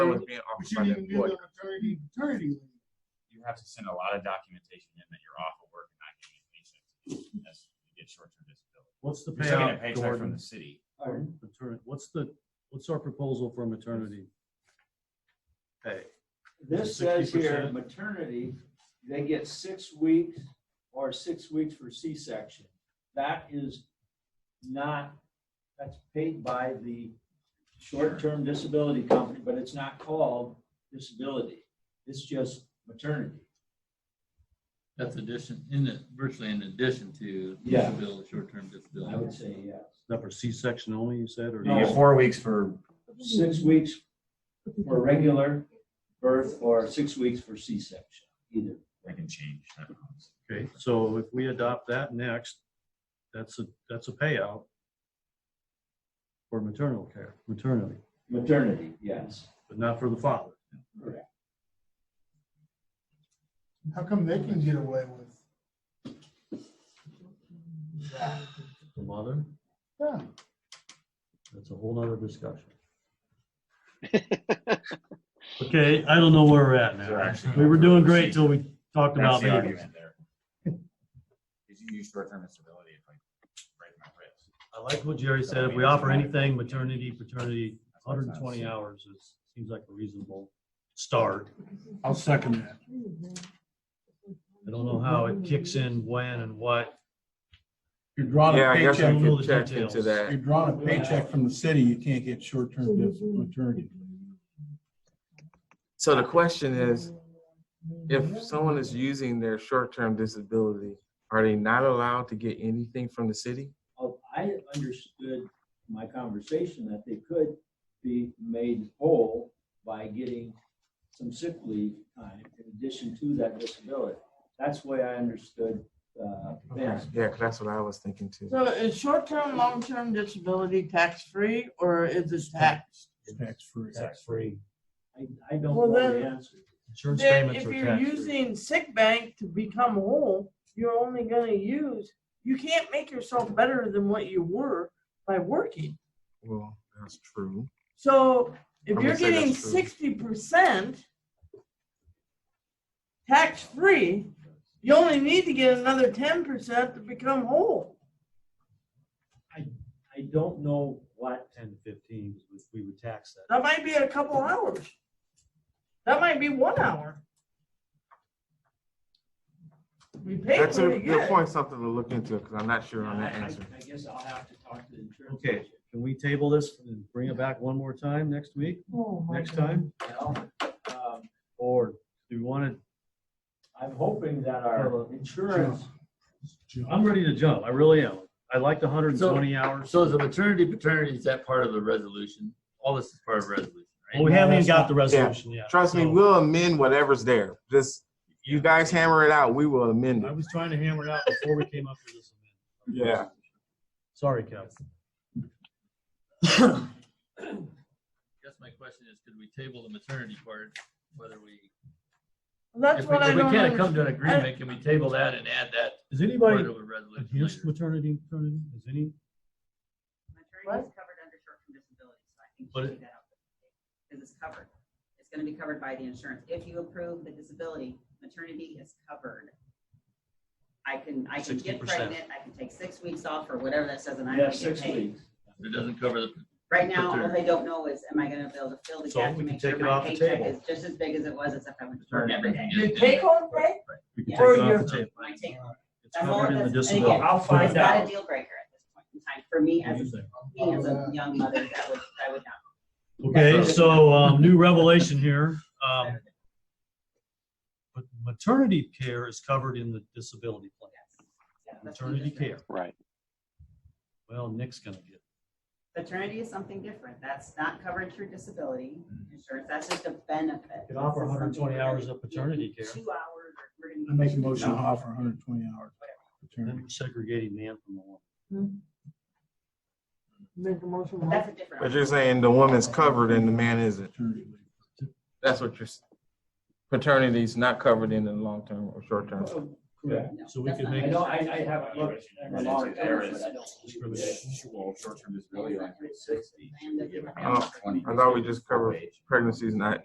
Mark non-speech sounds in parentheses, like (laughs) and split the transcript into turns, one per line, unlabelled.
was being
But
offered
you
by the
didn't give
employer.
them maternity, paternity leave.
you have to send a lot of documentation in that you're off of work and not getting a paycheck. That's, you get short-term disability.
What's the
You're taking a
payout,
paycheck from
Gordon?
the city.
for mater- What's the, what's our proposal for maternity? Hey,
This says here
60%.
maternity, they get six weeks or six weeks for C-section. That is not, that's paid by the short-term disability company, but it's not called disability. It's just maternity.
That's addition, in it, virtually in addition to
Yeah.
disability, short-term disability.
I would say yes.
that for C-section only, you said, or?
You get four weeks for,
Six weeks for regular birth or six weeks for C-section, either.
I can change. that.
Okay, so if we adopt that next, that's a, that's a payout for maternal care, maternity,
Maternity, yes.
but not for the father.
Correct.
How come they can get away with? that?
The mother,
Yeah,
that's a whole nother discussion. (laughs) Okay, I don't know where we're at
So
now.
actually-
We were doing great till we talked
That's
about
the
babies.
argument there. Did you use short-term disability if I break my wrist?
I like what Jerry said. If we offer anything, maternity, paternity, 120 hours is, seems like a reasonable start.
I'll second that.
I don't know how it kicks in, when and what.
You're drawing
Yeah,
a
I guess I
paycheck,
Don't know the
could check into
details.
you're
that.
drawing a paycheck from the city, you can't get short-term dis- maternity.
So the question is, if someone is using their short-term disability, are they not allowed to get anything from the city?
Oh, I understood my conversation that they could be made whole by getting some sick leave time in addition to that disability. That's the way I understood, uh, Ben's
Yeah, 'cause that's what I was thinking too.
So is short-term, long-term disability tax-free or is it taxed?
It's tax-free.
tax-free. I, I don't
Well,
know the
then-
answer.
Insurance
Then
payments
if
are
you're
tax-free.
using sick bank to become whole, you're only gonna use, you can't make yourself better than what you were by working.
Well, that's true.
So if
I'm
you're
gonna say
getting
that's true.
sixty percent tax-free, you only need to get another ten percent to become whole.
I don't know what,
10 to 15, we- we would tax that.
That might be a couple hours. That might be one hour. We pay
That's
what
a
we
good
get.
point, something to look into, because I'm not sure on
I,
that
I
answer.
I guess I'll have to talk to the insurance.
Okay.
agent.
Can we table this and bring it back one more time next week,
Oh, my
next
God.
time?
You know, um,
Or do we want to,
I'm hoping that our insurance,
I'm ready to jump. I really am. I like the 120 hours.
So is the maternity, paternity, is that part of the resolution? All this is part of the resolution,
Well, we
right?
haven't even got the resolution yet.
Trust me,
so-
we'll amend whatever's there. Just, you guys hammer it out, we will amend
I
it.
was trying to hammer it out before we came up with this. amendment.
Yeah.
Sorry, Kev.
I guess my question is, could we table the maternity part, whether we,
That's
if we,
what I
if we
don't
can't come
understand.
to an agreement, can we table that and add that
Is
part
anybody
of a resolution
against
later?
maternity, paternity? Is any,
Maternity is covered under short-term disability, so I think you
But
should take that out. Because it's covered. It's gonna be covered by the insurance. If you approve the disability, maternity is covered. I can, I can get
60%.
pregnant, I can take six weeks off or whatever that says and I'm
yeah,
gonna get
six
paid.
weeks.
It doesn't cover the,
Right now, all
Maternity.
they don't know is, am I gonna be able to fill the
So
gap
we can
to make sure
take it
my
off the
paycheck
table.
is just as big as it was, except I went to work every day.
Your take-home pay?
we can take it
Yeah.
off
Or
the table.
My take.
It's
That's all
covered
it
in the
does. And
disability.
again,
I'll
It's
find
not a
out.
deal breaker at this point in time. For me,
What do you
as
think?
a, me as a young mother, that would, I would not.
Okay, so, um, new revelation here. Um, but maternity care is covered in the disability plan,
Yeah, that's what you
maternity
just said.
care.
Right.
Well, Nick's gonna get,
Paternity is something different. That's not covered through disability insurance. That's just a benefit.
Could offer
This is
120
something
hours
we're
of
gonna-
paternity care.
Two hours. or we're
I
gonna-
make a motion to offer 120 hours
then
paternity.
we're segregating man from the woman.
Make a motion.
But That's a different.
But you're saying the woman's covered and the man isn't.
paternity leave.
That's what you're, s- paternity's not covered in the long term or short term.
Correct.
No,
So we
that's
could
not-
make-
I don't, I, I haven't looked. at the law.
It's there is-
I don't-
For the usual short-term disability, like sixty, we give it
Oh,
Uh,
twenty.
I thought we just covered- Pregnancy's not